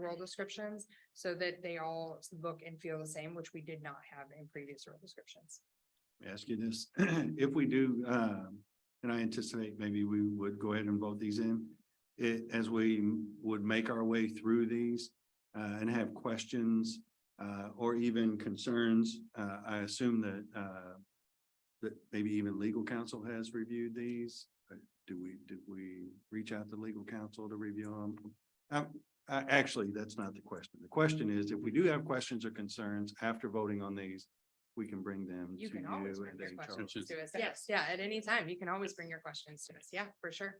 role descriptions so that they all look and feel the same, which we did not have in previous role descriptions. ask you this, if we do, um, and I anticipate maybe we would go ahead and vote these in. It, as we would make our way through these, uh, and have questions, uh, or even concerns, uh, I assume that, uh, that maybe even legal counsel has reviewed these. Uh, Do we, did we reach out to legal counsel to review them? Um, a- actually, that's not the question. The question is, if we do have questions or concerns after voting on these, we can bring them to You you can always bring and your questions HR. to us. Yes, yeah, at any time. You can always bring your questions to us. Yeah, for sure.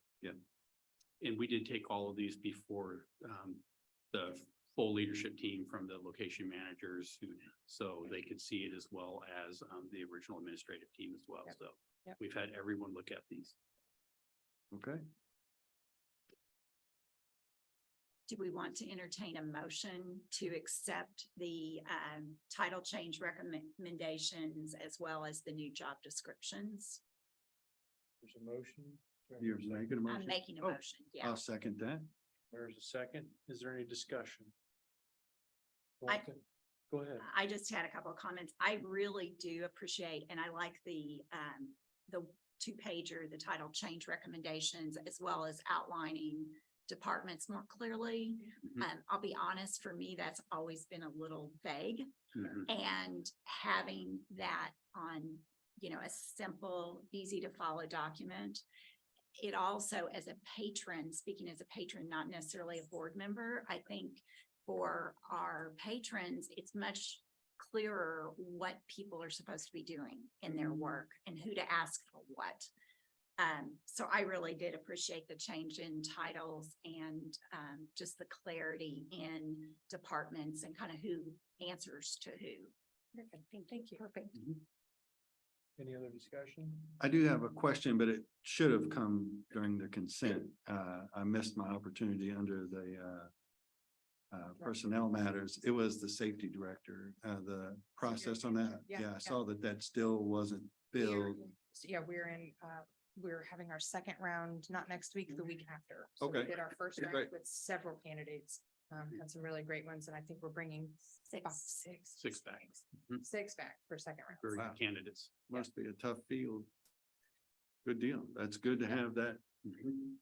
And we did take all of these before um the full leadership team from the location managers who, so they could see it as well as um the original administrative team as well, Yep. so. Yep. We've had everyone look at these. Okay, Do we want to entertain a motion to accept the um title change recommendations as well as the new job descriptions? There's a motion. Do I hear you're a second? making a I'm motion. making a Oh, motion, yeah. I'll second that. There's a second. Is there any discussion? I- Walton, Go ahead. I just had a couple of comments. I really do appreciate, and I like the um, the two pager, the title change recommendations, as well as outlining departments more clearly. Mm-hmm. Mhm. Um, I'll be honest, for me, that's always been a little vague. mm-hmm. And having that on, you know, a simple, easy to follow document. It also, as a patron, speaking as a patron, not necessarily a board member, I think for our patrons, it's much clearer what people are supposed to be doing in their work and who to ask for what. Um, so I really did appreciate the change in titles and, um, just the clarity in departments and kind of who answers to who. Perfect. Thank you. Perfect. Any other discussion? I do have a question, but it should have come during the consent. Uh, I missed my opportunity under the, uh, uh, personnel matters. It was the safety director, uh, the process on that. Yeah, Yeah, yeah. I saw that that still wasn't We're- filled. so, Yeah, we're in, uh, we're having our second round, not next week, the week after. So we Okay. Did our first Great. round with several candidates, um, had some really great ones, and I think we're bringing about Six. six. Six back. Mhm. Six back for second Very round. Wow. good candidates. Must be a tough field. Good deal. That's good to have that. Mm-hmm.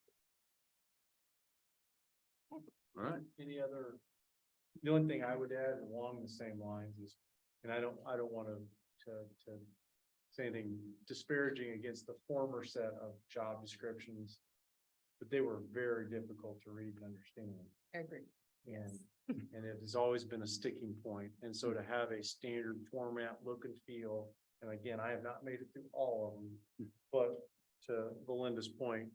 All right, Any other? The only thing I would add along the same lines is, and I don't, I don't want to, to, to say anything disparaging against the former set of job descriptions, but they were very difficult to read and understand. Agreed. And, and it has always been a sticking point. And so to have a standard format, look and feel, and again, I have not made it through all of Hmm. them. But to Belinda's point,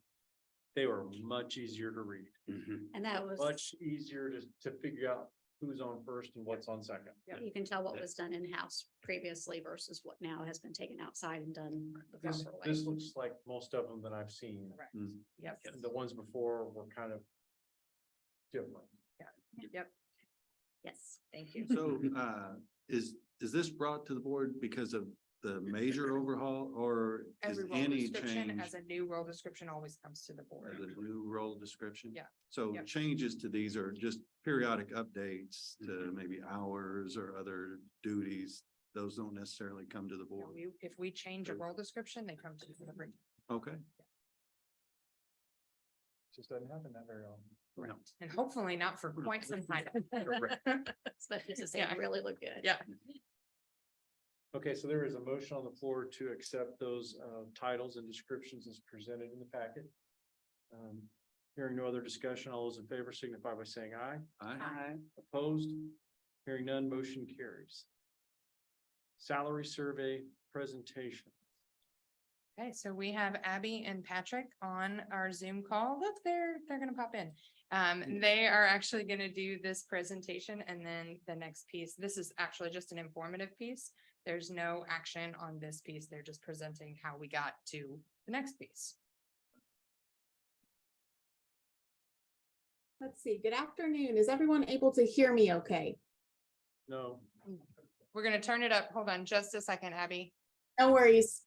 they were much easier to read, Mhm. And that was, much easier to, to figure out who's on first and what's on second. Yeah. you can tell what was done in-house previously versus what now has been taken outside and done the This, proper way. this looks like most of them that I've seen. Correct. Mm. Yep, Yes. The ones before were kind of different. yep. Yes. Thank you. so, uh, is, is this brought to the board because of the major overhaul or is Every role any description change? as a new role description always comes to the of board. The new role description? Yeah. So Yep. changes to these are just periodic updates to Mm-hmm. maybe hours or other duties. Those don't necessarily come to the You know, board. we- If we change a role description, they come to the board. Okay, Just doesn't happen that very often. Correct. And hopefully not for quite some time. Especially since they Yeah. really look good. Yeah. Okay, so there is a motion on the floor to accept those uh, titles and descriptions as presented in the packet. Um, Hearing no other discussion, all those in favor signify by saying aye. I, Opposed? Hearing none, motion carries. Salary survey presentation. Okay, so we have Abby and Patrick on our Zoom call. Look, they're, they're gonna pop in. Um, they are actually gonna do this presentation and then the next piece. This is actually just an informative piece. There's no action on this piece. They're just presenting how we got to the next piece. Let's see, good afternoon. Is everyone able to hear me okay? No, We're gonna turn it up. Hold on just a second, Abby. No worries.